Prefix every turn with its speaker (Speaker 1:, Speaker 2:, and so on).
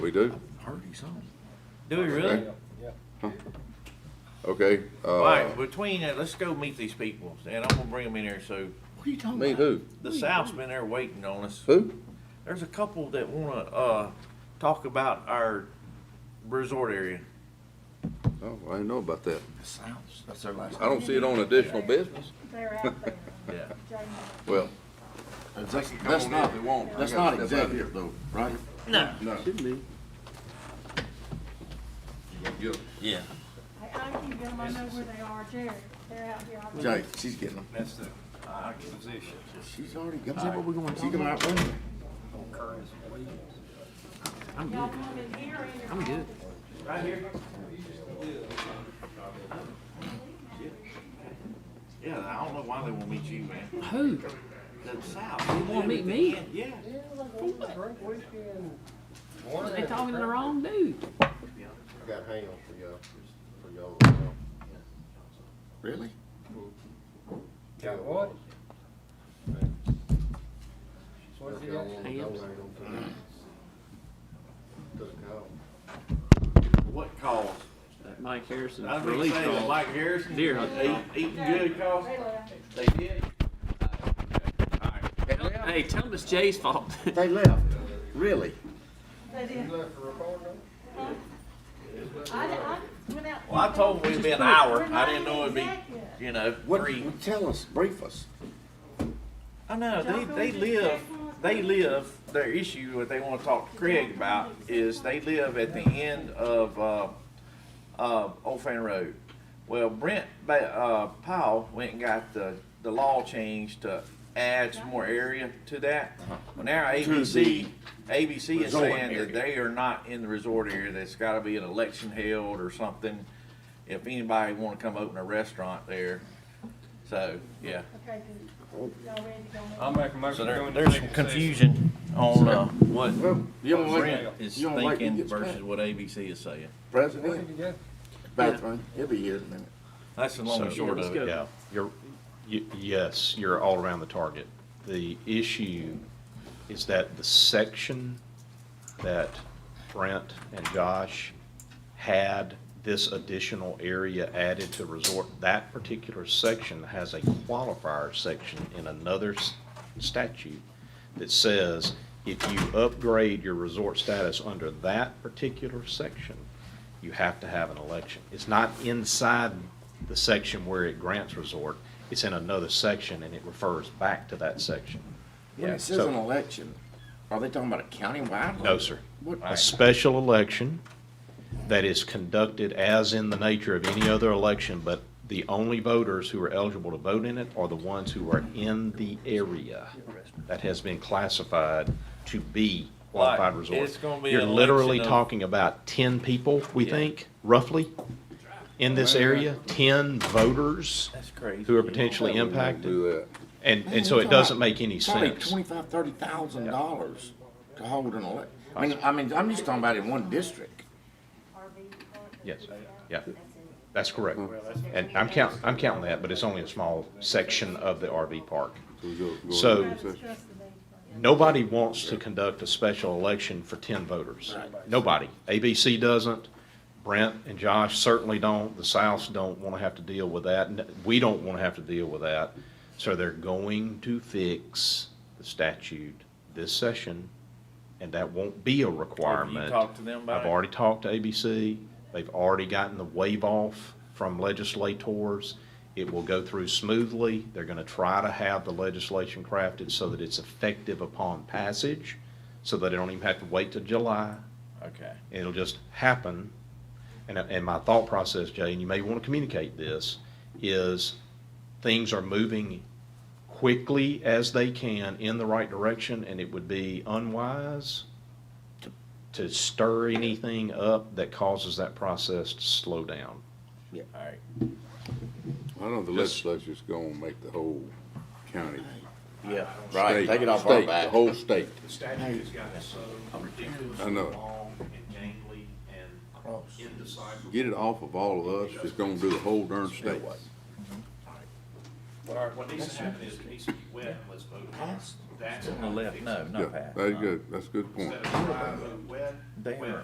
Speaker 1: We do?
Speaker 2: Heard he's home.
Speaker 3: Do we really?
Speaker 1: Okay. Okay,
Speaker 3: All right,
Speaker 1: uh,
Speaker 3: between that, let's go meet these people, and I'm gonna bring them in here, so,
Speaker 2: What are you talking
Speaker 1: me
Speaker 2: about?
Speaker 1: who?
Speaker 3: the South's been there waiting on us.
Speaker 1: Who?
Speaker 3: There's a couple that wanna, uh, talk about our resort area.
Speaker 1: Oh, I didn't know about that.
Speaker 2: The Souths. That's their last
Speaker 1: I don't see it on additional business.
Speaker 4: They're out there.
Speaker 3: Yeah.
Speaker 4: Jamie.
Speaker 1: Well,
Speaker 2: name. That's,
Speaker 1: that's not, it won't.
Speaker 2: that's not executive though, right?
Speaker 3: No.
Speaker 1: No.
Speaker 5: Shouldn't be.
Speaker 3: Yeah.
Speaker 4: I, I can get them, I know where they are, Jerry, they're out here. I
Speaker 2: Jay, she's getting them.
Speaker 6: That's the acquisition.
Speaker 2: She's already got them. What we going to talk about? later?
Speaker 5: I'm
Speaker 4: Y'all
Speaker 5: good.
Speaker 4: come in here and your
Speaker 5: I'm good.
Speaker 4: office.
Speaker 3: Right here? Yeah, I don't know why they wanna meet you, man.
Speaker 5: Who?
Speaker 3: The South. They
Speaker 5: wanna meet me?
Speaker 3: Yeah.
Speaker 5: They talking to the wrong dude.
Speaker 7: I got hang on for y'all, for y'all.
Speaker 2: Really?
Speaker 6: Got what?
Speaker 7: If y'all wanna go,
Speaker 5: Hams.
Speaker 7: hang on for me. To the call.
Speaker 3: What calls?
Speaker 5: That Mike Harrison
Speaker 3: I was gonna
Speaker 5: release
Speaker 3: say, the
Speaker 5: call.
Speaker 3: Mike Harrison.
Speaker 5: Deer
Speaker 3: Eat-
Speaker 5: hunting.
Speaker 3: Eating good calls.
Speaker 4: They left.
Speaker 3: They did.
Speaker 5: Hey, tell them it's Jay's fault.
Speaker 2: They left. Really?
Speaker 4: They did.
Speaker 7: You left for a phone number?
Speaker 4: I, did- I went out.
Speaker 3: Well, I told them it'd be an hour.
Speaker 4: We're
Speaker 3: I
Speaker 4: not
Speaker 3: didn't know it'd be,
Speaker 4: executive.
Speaker 3: you know,
Speaker 2: What,
Speaker 3: three.
Speaker 2: what- tell us, brief us.
Speaker 3: I know, they, they live, they live, their issue, what they wanna talk to Craig about is they live at the end of, uh, uh, Old Fan Road. Well, Brent, Ba- uh, Powell went and got the, the law changed to add some more area to that. Well, now ABC, ABC is
Speaker 2: Uh-huh. resort
Speaker 3: saying
Speaker 2: area.
Speaker 3: that they are not in the resort area, that's gotta be an election held or something. If anybody wanna come open a restaurant there, so, yeah.
Speaker 4: Okay, good. Y'all ready to go? now?
Speaker 6: I'll make a
Speaker 3: So
Speaker 6: motion. to go
Speaker 3: there,
Speaker 6: into
Speaker 3: there's some
Speaker 6: executive session.
Speaker 3: confusion on, uh, what
Speaker 2: Well, you don't like,
Speaker 3: Brent is
Speaker 2: you don't like
Speaker 3: thinking
Speaker 2: it.
Speaker 3: versus what ABC is saying.
Speaker 6: Where did
Speaker 2: President,
Speaker 6: you go?
Speaker 2: bathroom. He'll be here in a minute.
Speaker 3: That's the long and short of it.
Speaker 8: Yeah, you're, y- yes, you're all around the target. The issue is that the section that Brent and Josh had this additional area added to resort, that particular section has a qualifier section in another s- statute that says if you upgrade your resort status under that particular section, you have to have an election. It's not inside the section where it grants resort, it's in another section and it refers back to that section.
Speaker 2: When
Speaker 3: Yeah,
Speaker 2: it says
Speaker 8: so-
Speaker 2: an election, are they talking about a countywide?
Speaker 8: No,
Speaker 2: election?
Speaker 8: sir.
Speaker 2: What?
Speaker 8: A special election that is conducted as in the nature of any other election, but the only voters who are eligible to vote in it are the ones who are in the area that has been classified to be qualified
Speaker 3: Right.
Speaker 8: resort.
Speaker 3: It's gonna be an
Speaker 8: You're literally
Speaker 3: election of-
Speaker 8: talking about ten people, we
Speaker 3: Yeah.
Speaker 8: think, roughly, in this area, ten voters
Speaker 3: That's crazy.
Speaker 8: who are potentially
Speaker 1: We won't
Speaker 8: impacted.
Speaker 1: Do
Speaker 8: And,
Speaker 2: Man,
Speaker 8: and so
Speaker 2: you're
Speaker 8: it doesn't
Speaker 2: talking
Speaker 8: make any
Speaker 2: Probably
Speaker 8: sense.
Speaker 2: twenty-five, thirty thousand dollars to hold an election. I mean, I mean, I'm just talking about in one district.
Speaker 8: Yes, yeah, that's correct. And I'm counting, I'm counting that, but it's only a small section of the RV park.
Speaker 1: that. We go- go
Speaker 8: So-
Speaker 4: Try
Speaker 1: into
Speaker 4: to
Speaker 1: session.
Speaker 4: stress the meeting.
Speaker 8: Nobody wants to conduct a special election for ten voters. Nobody. ABC doesn't, Brent and Josh certainly don't, the Souths don't want to have to deal with that, N- we don't want to have to deal with that. So they're going to fix the statute this session, and that won't be a requirement.
Speaker 3: talked to them about
Speaker 8: I've
Speaker 3: it?
Speaker 8: already talked to ABC, they've already gotten the wave off from legislators. It will go through smoothly, they're gonna try to have the legislation crafted so that it's effective upon passage, so that they don't even have to wait till July.
Speaker 3: Okay.
Speaker 8: It'll just happen. And, and my thought process, Jay, and you may want to communicate this, is things are moving quickly as they can in the right direction, and it would be unwise to- to stir anything up that causes that process to slow down.
Speaker 3: All right.
Speaker 1: I know the
Speaker 8: Just-
Speaker 1: legislature's gonna make the whole county,
Speaker 2: Yeah.
Speaker 1: state,
Speaker 2: Right, take it off our
Speaker 1: state, the
Speaker 2: back.
Speaker 1: whole state.
Speaker 9: The statute has gotten so ridiculously
Speaker 1: I know it.
Speaker 9: long and gangly and indecipherable.
Speaker 1: Get it off of all of us, it's gonna do the whole darn state.
Speaker 9: What needs to happen is it needs to be wet, let's vote on it.
Speaker 1: that's.
Speaker 8: On the left, no,
Speaker 3: Yeah,
Speaker 8: not past.
Speaker 3: that's good, that's a good point.
Speaker 1: Instead of five, west,
Speaker 8: Damn.
Speaker 1: west.